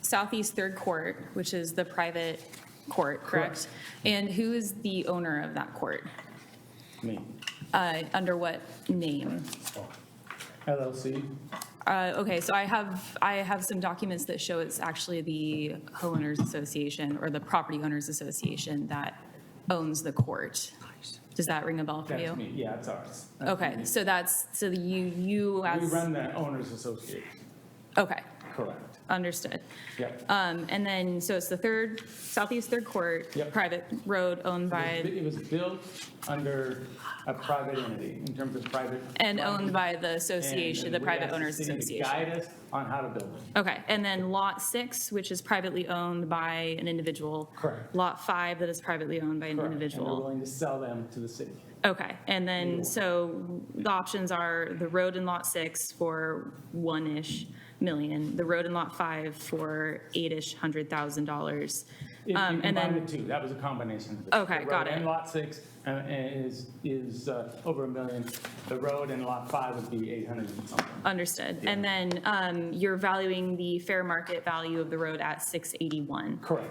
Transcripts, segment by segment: Southeast Third Court, which is the private court, correct? And who is the owner of that court? Me. Uh, Under what name? LLC? Uh, Okay, so I have, I have some documents that show it's actually the homeowners association or the property owners association that owns the court. Does that ring a bell for That's you? me, yeah, it's ours. That's Okay, me. so that's, so you, you We as, run the owners association, okay, correct. understood. Yep. Um, And then, so it's the third, Southeast Third Court, Yep. private road owned by, It was built under a private entity, in terms of private. and property. owned by the And- association, and the we private asked owners city to association. Guide us on how to build it. Okay, and then Lot 6, which is privately owned by an individual. Correct. Lot 5, that is privately owned by an Correct. And we're individual. willing to sell them to the city. Okay, and then, so the options are the road in Lot 6 for one-ish million, the road in Lot 5 for eight-ish hundred thousand dollars. If you Um, and combine then- the two, that was a combination. of it. Okay, The got road it. And lot six uh, is, is uh, over a million. The road and lot five would be 800 and something. Understood. And then um, you're valuing the fair market value of the road at 681. Correct.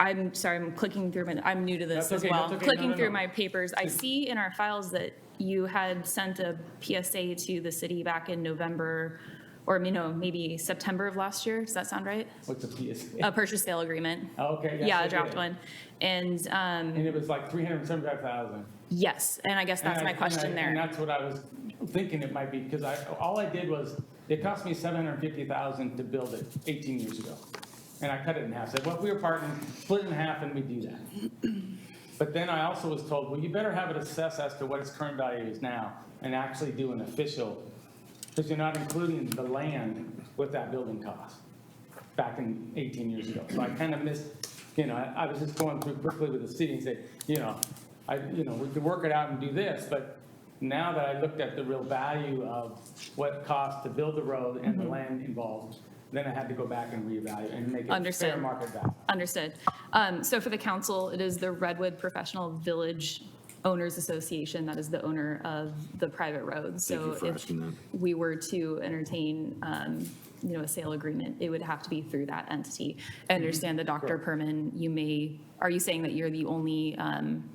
I'm sorry, I'm clicking through, my. I'm new to this That's as okay, well. that's okay. No, Clicking no, through no. my papers, I see in our files that you had sent a PSA to the city back in November, or, you know, maybe September of last year. Does that sound right? What's the PSA? A purchase sale agreement. Oh, Okay, yes, Yeah, I a draft did. one. And um, And it was like 375,000. yes, and I guess that's And I- my and I- question And there. that's what I was thinking it might be, because I, all I did was, it cost me 750,000 to build it 18 years ago. And I cut it in half, said, well, if we were partnering, split it in half and we do that. But then I also was told, well, you better have it assessed as to what its current value is now and actually do an official, because you're not including the land with that building cost back in 18 years ago. So I kind of missed, you know, I I was just going through quickly with the city and say, you know, I, you know, we could work it out and do this, but now that I looked at the real value of what it cost to build the road and the land involved, then I had to go back and reevaluate and make it fair Understood. market value. Understood. Um, So for the council, it is the Redwood Professional Village Owners Association that is the owner of the private road. Thank you So for if asking that. we were to entertain, um, you know, a sale agreement, it would have to be through that entity. I Mm-hmm. understand that Dr. Perman, you may, are you saying that you're the only, um,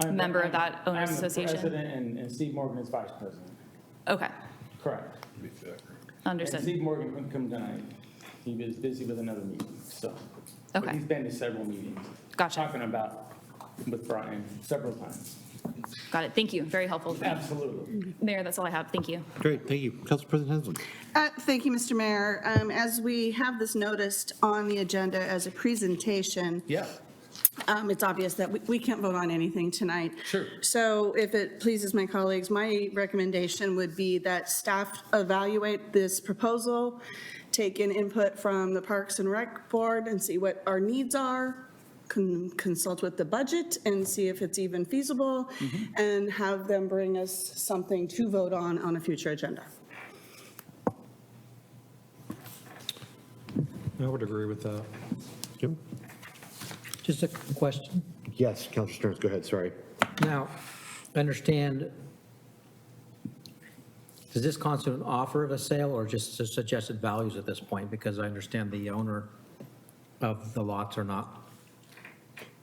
I'm- Member of that I'm- owners association? I'm the president and- and Steve Morgan is vice president, okay, correct. And understood. Steve Morgan couldn't come tonight. He was busy with another meeting, so. But Okay. he's been to several meetings. Gotcha. Talking about with Brian several times. Got it. Thank you. Very helpful. Absolutely. Mayor, that's all I have. Thank you. Great, thank you. Council President Henslin. Uh, Thank you, Mr. Mayor. Um, As we have this noticed on the agenda as a presentation, Yeah. um, it's obvious that we- we can't vote on anything tonight. Sure. So if it pleases my colleagues, my recommendation would be that staff evaluate this proposal, take in input from the Parks and Rec Board and see what our needs are, con- consult with the budget and see if it's even feasible, Mm-hmm. and have them bring us something to vote on on a future agenda. I would agree with that. Jim? Just a question. Yes, Council Sterns, go ahead, sorry. Now, I understand, does this constitute an offer of a sale or just the suggested values at this point? Because I understand the owner of the lots are not,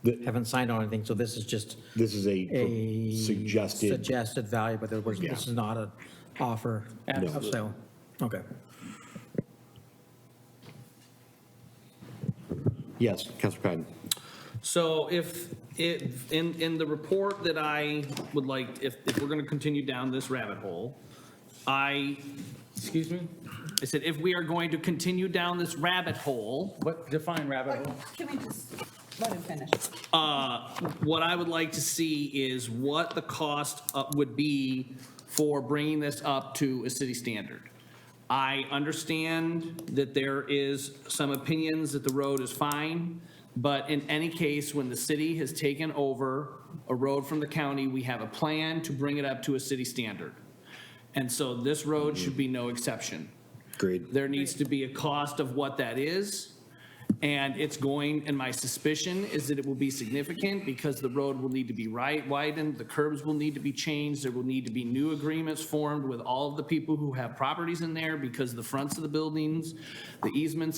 The- haven't signed on anything, so this is just This is a a. pro- suggested, Suggested value, but there was, Yeah. this is not an offer of Absolutely. sale. Okay. yes, Council Patton. So if, it in, in the report that I would like, if, if we're going to continue down this rabbit hole, I, Excuse me? I said, if we are going to continue down this rabbit hole, What, define rabbit hole? Can we just let him finish? what I would like to see is what the cost uh, would be for bringing this up to a city standard. I understand that there is some opinions that the road is fine, but in any case, when the city has taken over a road from the county, we have a plan to bring it up to a city standard. And so this road should be no exception. Agreed. There needs to be a cost of what that is. And it's going, and my suspicion is that it will be significant because the road will need to be right widened, the curbs will need to be changed, there will need to be new agreements formed with all of the people who have properties in there because the fronts of the buildings, the easements